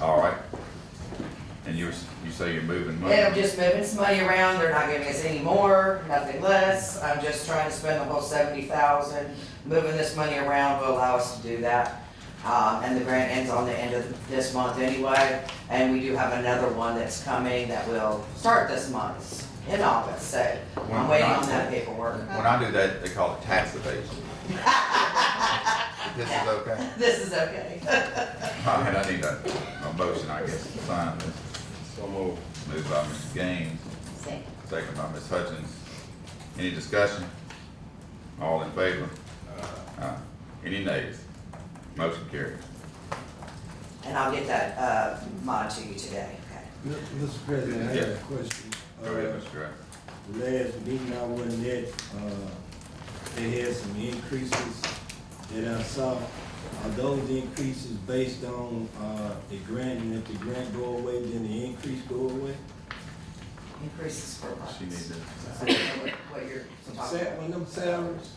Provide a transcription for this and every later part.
All right. And you, was- you say you're moving money? And I'm just moving some money around, they're not giving us any more, nothing less, I'm just trying to spend the whole seventy thousand, moving this money around will allow us to do that. Um, and the grant ends on the end of this month anyway, and we do have another one that's coming that will start this month, in August, so I'm waiting on that paperwork. When I do that, they call it tax evasion. This is okay? This is okay. I mean, I need a, a motion, I guess, to sign this. So moved. Moved by Ms. Gaines, second by Ms. Hutchins. Any discussion? All in favor? Uh, Aye. Any nays? Motion carries. And I'll get that, uh, mod to you today, okay? Mr. President, I have a question. Go ahead, Uh, Mr. Gray. Last meeting I wasn't at, uh, they had some increases that I saw. Are those increases based on, uh, the grant, and if the grant go away, then the increase go away? Increases for what? She needs to. I don't know What what you're talking Sa- about. When them salaries,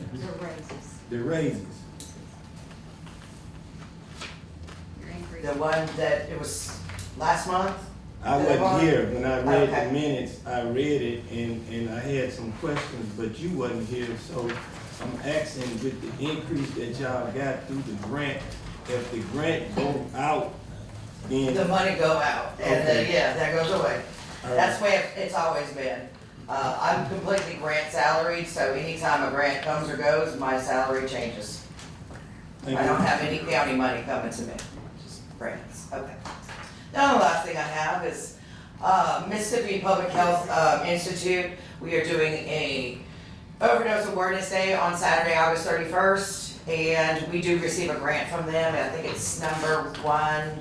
Your raises, the raises, your increase. The one that it was last month? I The one- wasn't here, when I read Okay. the minutes, I read it, and, and I had some questions, but you wasn't here, so I'm asking with the increase that y'all got through the grant, if the grant go out, then. The money go out, and then, Okay. yeah, that goes away. That's the way it- it's always been. Uh, I'm completely grant salaried, so anytime a grant comes or goes, my salary changes. Thank I you. don't have any county money coming to me, just grants, okay. The only last thing I have is, uh, Mississippi Public Health, um, Institute, we are doing a overdose awareness day on Saturday, August thirty-first, and we do receive a grant from them, and I think it's number one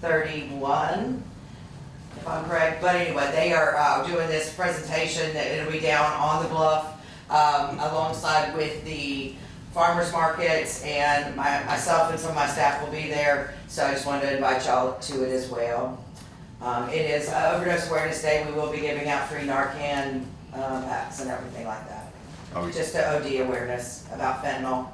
thirty-one, if I'm correct, Uh, but anyway, they are, uh, doing this presentation, that it'll be down on the bluff, um, alongside with the farmers markets, and my, myself and some of my staff will be there, so I just wanted to invite y'all to it as well. Um, it is overdose awareness day, we will be giving out free Narcan, um, packs and everything like that. Are Oh, we, Just to OD awareness about fentanyl,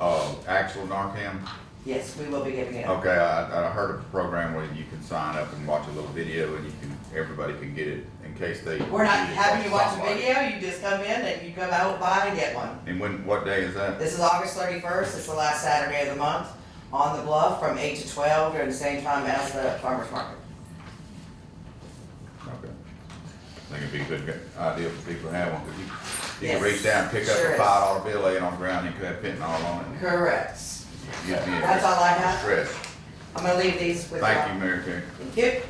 uh, actual Narcan? yes, we will be giving it. Okay, I, I heard of a program where you can sign up and watch a little video and you can, everybody can get it in case they. We're not need it having you from watch a somebody. video, you just come in and you come out, buy and get one. And when, what day is that? This is August thirty-first, it's the last Saturday of the month, on the bluff from eight to twelve, during the same time as the farmers market. Okay. I think it'd be a good idea for people to have one, because you, you can Yes, reach down, pick up sure a is. five dollar bill laying on the ground, you could have fentanyl on it. Correct. You'd be in That's all I have. Stress. I'm gonna leave these with Thank you, y'all. Mary Kay. Thank you.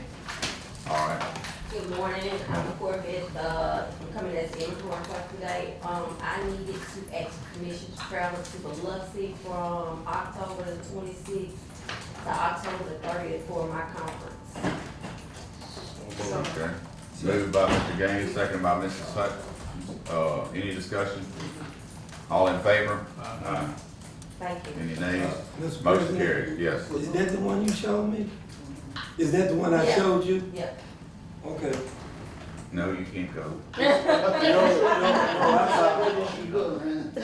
All right. Good morning, I'm Corvette, uh, I'm coming as the inventory clerk today. Um, I needed to ask permission to travel to Biloxi from October the twenty-sixth to October the thirtieth for my conference. So, Okay. Moved by Mr. Gaines, seconded by Mrs. Hut. Uh, any discussion? All in favor? Aye. thank you. Any Uh, nays? Motion Mr. President, carried, yes. Is that the one you showed me? Is that the one I Yeah. showed you? Yep. Okay. No, you can't go. I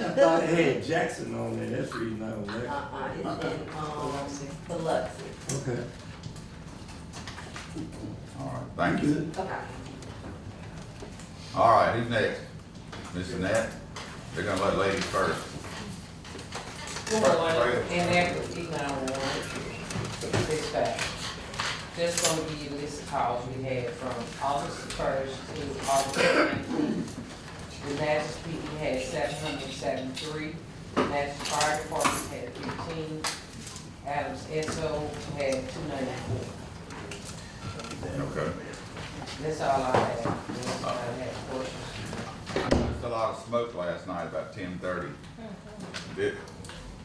thought it had Jackson on there, that's the reason I was there. Uh-uh, it's in, um, Biloxi. Okay. All right, thank you. Okay. All right, who's next? Ms. Annette? They're gonna let ladies first. And that was E nine one, six five. Just gonna give you a list of calls we had from August first to August nineteenth. The last week we had seven hundred seventy-three, last fire department had fifteen, Adams Esso had two ninety-four. Okay. That's all I had, unless I had questions. There's a lot of smoke last night, about ten thirty. Did,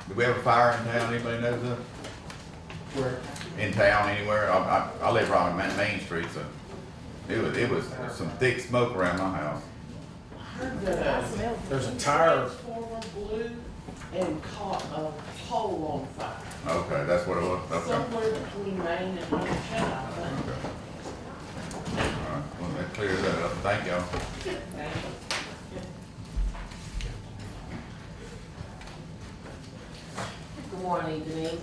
did we have a fire in town, anybody knows of? Where? In town, anywhere, I, I, I live right on Ma- Main Street, so it was, it was some thick smoke around my house. There's a tire. Transformer blew and caught a pole on fire Okay, that's what it was, okay. somewhere between Maine and Montana, I think. okay. All right, well, that clears that up, thank y'all. Good morning, Denise.